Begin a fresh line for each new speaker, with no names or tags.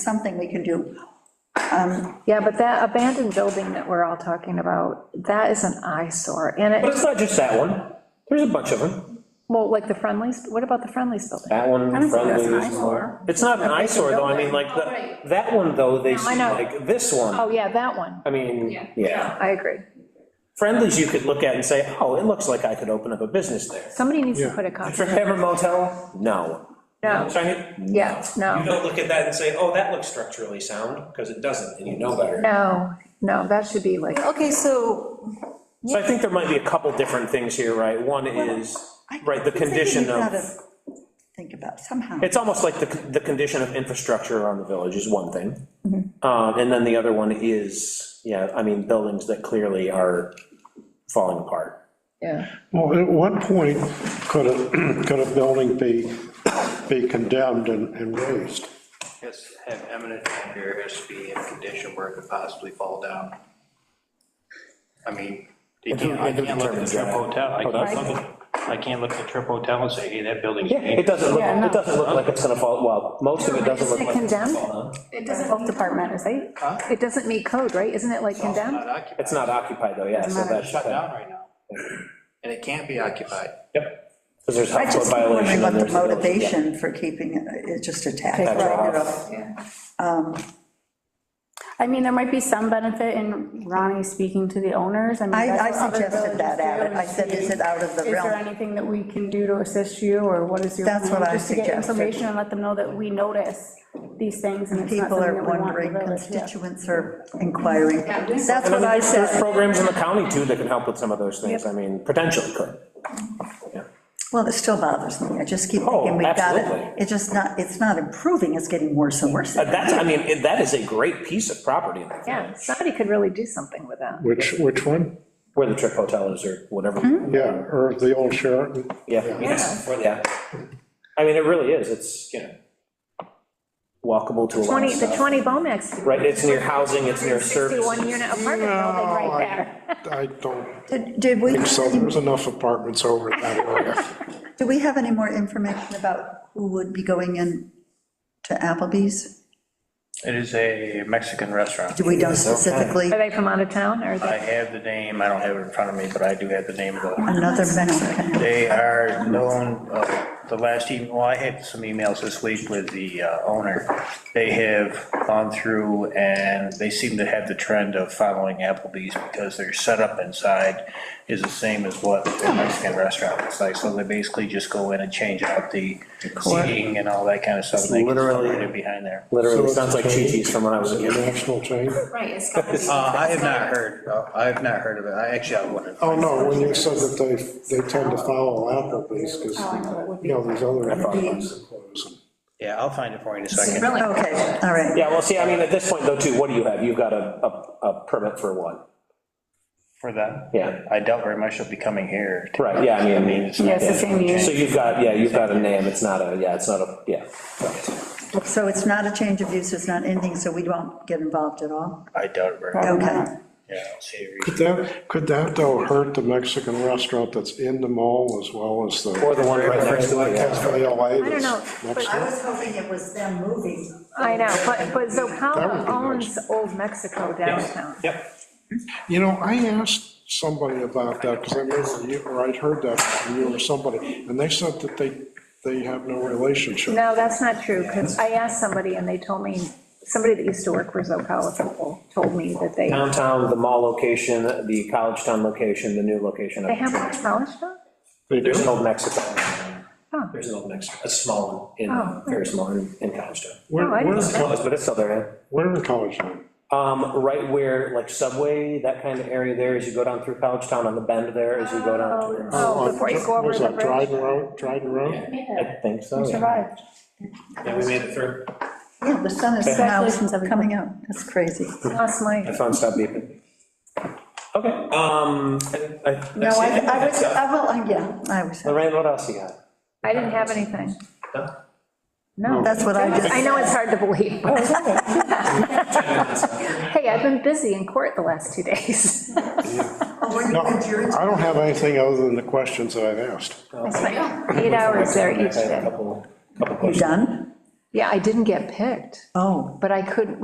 something we can do.
Yeah, but that abandoned building that we're all talking about, that is an eyesore, and
But
it,
it's not just that one, there's a bunch of them.
well, like the Friendlies, what about the Friendlies building?
That one,
don't think that's
friendly.
an
this
eyesore.
one. It's not an eyesore, though, I mean, like, that, that one, though, they
I
seem
know.
like, this one,
Oh, yeah, that one,
I mean, yeah.
I agree.
Friendlies you could look at and say, oh, it looks like I could open up a business there.
Somebody needs to put a copy.
Trip Hammer Motel, no.
No.
Shiny? No.
Yeah, no.
You don't look at that and say, oh, that looks structurally sound, because it doesn't, and you know better.
No, no, that should be like,
Okay, so.
So I think there might be a couple different things here, right? One is,
I-
right,
I'm
the
thinking
condition
you've
of,
gotta Think about somehow.
it's almost like the, the condition of infrastructure around the village is one thing.
Mm-hmm.
Uh, And then the other one is, yeah, I mean, buildings that clearly are falling apart.
yeah,
Well, at what point could a, could a building be, be condemned and, and raised?
Yes, have eminent danger has to be in a condition where it could possibly fall down. I mean, you can't, I can't look at the Trip Hotel, I can't look, at- I can't look at the Trip Hotel and say, hey, that building's
It
dangerous.
doesn't look,
Yeah, no.
it doesn't look like it's gonna fall, well, most of it doesn't look
Isn't it
like it's gonna
condemned?
fall down.
it doesn't meet department,
Huh?
right? It doesn't meet code, right? Isn't it like
It's also
condemned?
not occupied.
It's not occupied though, yeah, so
It's
that's.
shut down right now, and it can't be occupied.
Yep. Because there's
I
health code
just keep wondering
violation.
what
and
the
there's village-
motivation for keeping it, it's just a tax.
Tax write-off.
write-off.
I mean, there might be some benefit in Ronnie speaking to the owners. mean,
I,
that's
I
what other
suggested that,
villages
Abbott.
do,
I said, is it out of the
Is there
realm?
anything that we can do to assist you, or what is your?
That's what
plan?
I
Just to get
suggested.
information and let them know that we notice these things, and it's not
People
something
are
that we want in
wondering,
the village. yeah.
constituents are inquiring. That's
And then
what I
there's- There's
said.
programs in the county too that can help with some of those things, I mean, potentially could.
Well, it still bothers me. I just keep
Oh,
thinking, we've got it.
absolutely.
It's just not, it's not improving, it's getting worse and worse.
But That's, I mean, it- that is a great piece of property in the
Yeah,
village,
somebody could really do something with that.
Which, which one?
where the Trip Hotel is or whatever.
Mm-hmm.
Yeah, or the old Sheraton?
Yeah, yes, or- yeah. I mean, it really is, it's, you know, walkable to a lot
20,
of
the
stuff.
20 Bomax.
Right, it's near housing, it's near service.
61 unit apartment building
No,
right
Oh, I-
there.
I don't
Did did we,
think so, there's enough apartments over in that area.
do we have any more information about who would be going in to Applebee's?
It is a Mexican restaurant.
Do we know specifically
Are they from out of town, or are they?
I have the name, I don't have it in front of me, but I do have the name of the
another Mexican?
They are known, uh, the last email, well, I had some emails this week with the uh, owner. They have gone through and they seem to have the trend of following Applebee's because their setup inside is the same as what a Mexican restaurant looks like. So they basically just go in and change out the seating and all that kind of stuff. They can still
Literally.
put it Behind there.
Literally
So
sounds like
it's a
Chi-Chi's from when I was a kid.
National chain?
Right, it's gotta
Uh,
be.
I have not heard, uh, I have not heard of it. I actually, I wouldn't.
Oh, no, when you said that they, they tend to follow Applebee's, because, you know, these other apartments. are closing.
Yeah, I'll find it for you in a second.
Really?
Okay, all right.
Yeah, well, see, I mean, at this point though, too, what do you have? You've got a, a, a permit for what?
For that.
Yeah.
I doubt very much they'll be coming here. to-
Right, yeah, I mean.
I mean, it's not-
Yeah, it's the same year.
So you've got, yeah, you've got a name, it's not a, yeah, it's not a, yeah. so.
So it's not a change of use, it's not anything, so we won't get involved at all?
I doubt it very much.
Okay.
Yeah, I don't see a reason.
Could that, could that though hurt the Mexican restaurant that's in the mall as well as the?
Or the one right next to it, yeah.
Cafe LA.
I don't know, but
I was hoping it was them moving.
I know, but, but
That would
Zocala
be
owns Old Mexico downtown.
Yep.
You know, I asked somebody about that, because I remember you, or I'd heard that from you or somebody, and they said that they, they have no relationship.
No, that's not true, because I asked somebody, and they told me, somebody that used to work for Zocala people told me that they,
Downtown, the mall location, the College Town location, the new location. of
they have
the
one
church.
in Bellish,
They
There's an
do?
old Mexico.
Huh.
There's an old Mexico, a small one,
Oh.
in, very small in, in College Town.
Where,
No, I didn't
where,
know.
Close, but it's still there,
where in College Town?
yeah. Um, right where, like Subway, that kind of area there, as you go down through College Town on the bend there, as you go down towards.
Oh,
on-
before you go over
what is
the
Uh, that,
bridge.
Dryden Road, Dryden Road?
I think so, yeah.
Survived.
Yeah, we made it through.
Yeah, the sun is now
Congratulations, everybody.
coming out, that's crazy.
lost
My
my,
phone stopped beeping. Okay, um, I, I.
No, I, I was, I will, uh, yeah, I was,
Lorraine, what else you got?
I didn't have anything.
No?
No,
that's what I just,
I know it's hard to believe.
Oh,
Hey, I've been busy in court the last two days.
oh,
No, I don't have anything other than the questions that I've asked.
I spent Eight hours there each
I had a
day.
couple, couple
you
questions.
done?
Yeah, I didn't get picked,
Oh.
but I couldn't,